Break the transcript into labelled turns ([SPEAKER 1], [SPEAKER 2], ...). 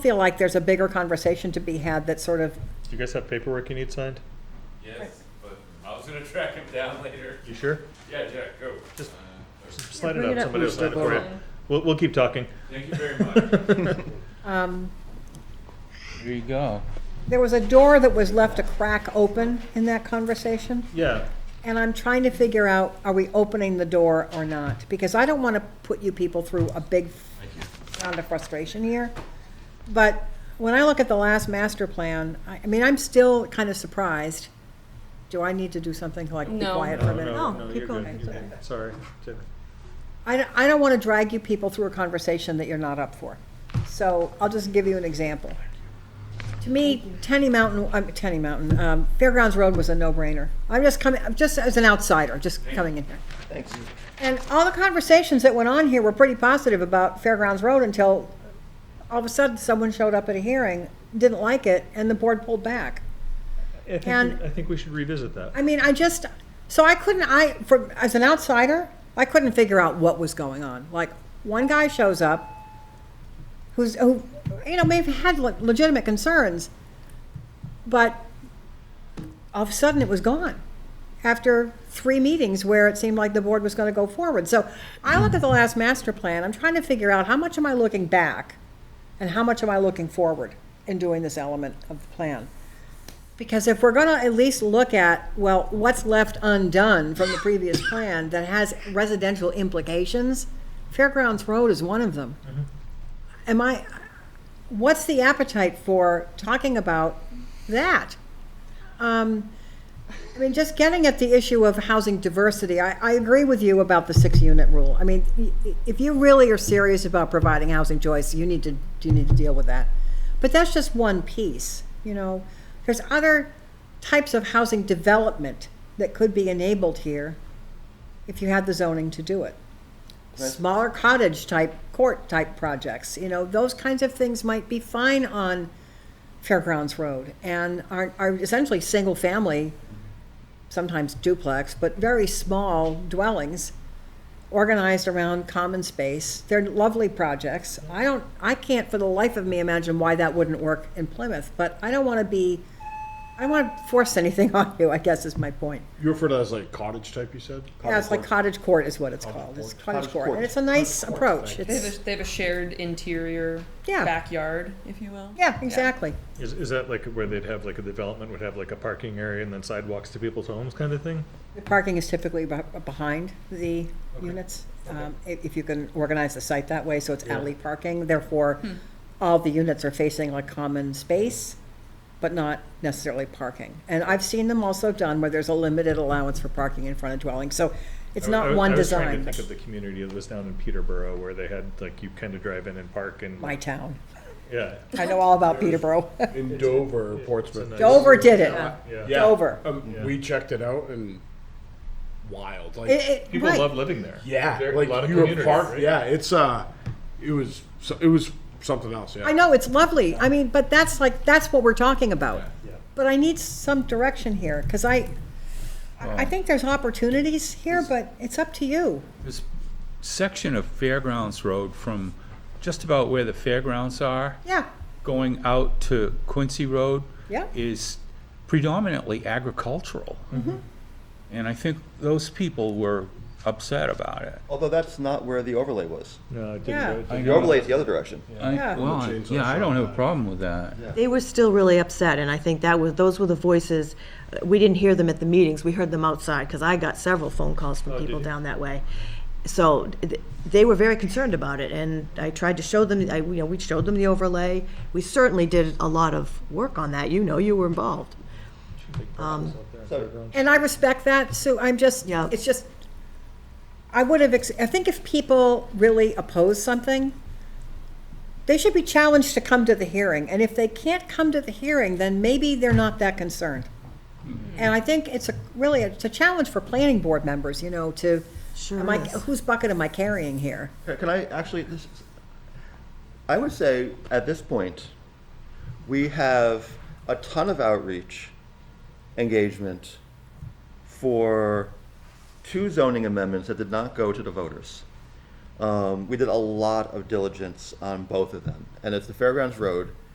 [SPEAKER 1] feel like there's a bigger conversation to be had that sort of,
[SPEAKER 2] Do you guys have paperwork you need signed?
[SPEAKER 3] Yes, but I was gonna track him down later.
[SPEAKER 2] You sure?
[SPEAKER 3] Yeah, Jack, go.
[SPEAKER 2] Just-
[SPEAKER 3] Uh,
[SPEAKER 2] Slide
[SPEAKER 1] Yeah,
[SPEAKER 2] it
[SPEAKER 1] bring
[SPEAKER 2] up,
[SPEAKER 1] it up.
[SPEAKER 2] somebody will sign it for you.
[SPEAKER 3] Step over.
[SPEAKER 2] We'll, we'll keep talking.
[SPEAKER 3] Thank you very much.
[SPEAKER 1] um,
[SPEAKER 4] There you go.
[SPEAKER 1] there was a door that was left a crack open in that conversation.
[SPEAKER 2] Yeah,
[SPEAKER 1] And I'm trying to figure out, are we opening the door or not? Because I don't want to put you people through a big round of frustration here. But when I look at the last master plan, I, I mean, I'm still kind of surprised. Do I need to do something to, like be
[SPEAKER 5] No.
[SPEAKER 1] quiet for
[SPEAKER 2] no,
[SPEAKER 1] a minute? Oh,
[SPEAKER 2] no, no,
[SPEAKER 1] keep
[SPEAKER 2] you're
[SPEAKER 1] going.
[SPEAKER 2] good,
[SPEAKER 1] It's
[SPEAKER 2] you're
[SPEAKER 1] okay.
[SPEAKER 2] good. Sorry. Jenny.
[SPEAKER 1] I, don't- I don't want to drag you people through a conversation that you're not up for. So I'll just give you an example. To me, Tenny Mountain, um, Tenny Mountain, um, Fairgrounds Road was a no-brainer. I'm just coming, I'm just as an outsider, just coming in here. Thanks. And all the conversations that went on here were pretty positive about Fairgrounds Road until all of a sudden someone showed up at a hearing, didn't like it, and the board pulled back.
[SPEAKER 2] I think,
[SPEAKER 1] And-
[SPEAKER 2] we- I think we should revisit that.
[SPEAKER 1] I mean, I just, so I couldn't, I, for, as an outsider, I couldn't figure out what was going on. Like, one guy shows up who's, who, you know, may have had le- legitimate concerns, but all of a sudden it was gone after three meetings where it seemed like the board was going to go forward. So I look at the last master plan, I'm trying to figure out how much am I looking back and how much am I looking forward in doing this element of the plan? Because if we're gonna at least look at, well, what's left undone from the previous plan that has residential implications, Fairgrounds Road is one of them. Am I, what's the appetite for talking about that? Um, I mean, just getting at the issue of housing diversity, I, I agree with you about the six-unit rule. I mean, i- i- if you really are serious about providing housing choice, you need to, you need to deal with that. But that's just one piece, you know? There's other types of housing development that could be enabled here if you had the zoning to do it. Smaller cottage-type, court-type projects, you know, those kinds of things might be fine on Fairgrounds Road and are, are essentially single-family sometimes duplex, but very small dwellings organized around common space. They're lovely projects. I don't, I can't for the life of me imagine why that wouldn't work in Plymouth, but I don't want to be, I don't want to force anything on you, I guess is my point.
[SPEAKER 6] You refer to that as like cottage type, you said?
[SPEAKER 1] Yeah, it's like
[SPEAKER 6] Cottage
[SPEAKER 1] cottage court is what it's called. It's cottage
[SPEAKER 6] Cottage
[SPEAKER 1] court.
[SPEAKER 6] court.
[SPEAKER 1] And it's a nice
[SPEAKER 6] Cottage court,
[SPEAKER 1] approach.
[SPEAKER 6] thank
[SPEAKER 5] They
[SPEAKER 1] It's,
[SPEAKER 5] have a, they have a shared interior
[SPEAKER 1] Yeah.
[SPEAKER 5] backyard, if you will.
[SPEAKER 1] yeah, exactly.
[SPEAKER 2] Is, is that like where they'd have, like a development would have like a parking area and then sidewalks to people's homes kind of thing?
[SPEAKER 1] The parking is typically beh- behind the units, um, i- if you can organize the site that way, so it's
[SPEAKER 2] Yeah.
[SPEAKER 1] alley parking. Therefore, all the units are facing a common space, but not necessarily parking. And I've seen them also done where there's a limited allowance for parking in front of dwellings, so it's
[SPEAKER 2] I-
[SPEAKER 1] not
[SPEAKER 2] I-
[SPEAKER 1] one
[SPEAKER 2] I was trying
[SPEAKER 1] design.
[SPEAKER 2] to think
[SPEAKER 1] but
[SPEAKER 2] of the community that was down in Peterborough where they had, like, you kind of drive in and park and,
[SPEAKER 1] My town.
[SPEAKER 2] yeah.
[SPEAKER 1] I know all about Peterborough.
[SPEAKER 6] court. In Dover,
[SPEAKER 2] it's a
[SPEAKER 6] Portsmouth.
[SPEAKER 2] nice-
[SPEAKER 1] Dover did it.
[SPEAKER 2] Yeah.
[SPEAKER 6] Yeah,
[SPEAKER 1] Dover.
[SPEAKER 6] um,
[SPEAKER 2] Yeah.
[SPEAKER 6] We checked it out and wild, like
[SPEAKER 1] It- it-
[SPEAKER 2] People
[SPEAKER 1] right.
[SPEAKER 2] love living there.
[SPEAKER 6] yeah,
[SPEAKER 2] There- a
[SPEAKER 6] like
[SPEAKER 2] lot of
[SPEAKER 6] you were
[SPEAKER 2] community,
[SPEAKER 6] part-
[SPEAKER 2] right?
[SPEAKER 6] Yeah, it's uh, it was so, it was something else. Yeah,
[SPEAKER 1] I know, it's lovely. I mean, but that's like, that's what we're talking about.
[SPEAKER 2] Yeah.
[SPEAKER 1] But I need some direction here, because I, I I think there's opportunities here, but it's up to you.
[SPEAKER 4] This section of Fairgrounds Road from just about where the fairgrounds are,
[SPEAKER 1] Yeah,
[SPEAKER 4] going out to Quincy Road.
[SPEAKER 1] Yeah.
[SPEAKER 4] Is predominantly agricultural.
[SPEAKER 1] Mm-hmm.
[SPEAKER 4] And I think those people were upset about it.
[SPEAKER 7] Although that's not where the overlay was.
[SPEAKER 2] No, it
[SPEAKER 1] Yeah.
[SPEAKER 2] didn't go.
[SPEAKER 4] I
[SPEAKER 7] The overlay is the other direction.
[SPEAKER 4] I-
[SPEAKER 1] Yeah.
[SPEAKER 4] Well, I-
[SPEAKER 6] Change
[SPEAKER 4] yeah,
[SPEAKER 6] that
[SPEAKER 4] I don't have a
[SPEAKER 6] shot.
[SPEAKER 4] problem with that.
[SPEAKER 8] They were still really upset, and I think that was, those were the voices, we didn't hear them at the meetings, we heard them outside, because I got several phone calls from people
[SPEAKER 2] you?
[SPEAKER 8] down that way. So th- they were very concerned about it, and I tried to show them, I, you know, we showed them the overlay. We certainly did a lot of work on that, you know, you were involved.
[SPEAKER 7] So
[SPEAKER 1] and I respect that, Sue, I'm just,
[SPEAKER 8] Yeah.
[SPEAKER 1] it's just, I would have, ex- I think if people really oppose something, they should be challenged to come to the hearing, and if they can't come to the hearing, then maybe they're not that concerned. And I think it's a, really, it's a challenge for planning board members, you know, to,
[SPEAKER 8] Sure
[SPEAKER 1] am I,
[SPEAKER 8] is.
[SPEAKER 1] whose bucket am I carrying here?
[SPEAKER 7] can- can I actually, this, is- I would say at this point, we have a ton of outreach engagement for two zoning amendments that did not go to the voters. Um, Um, we did a lot of diligence on both of them, and it's the Fairgrounds Road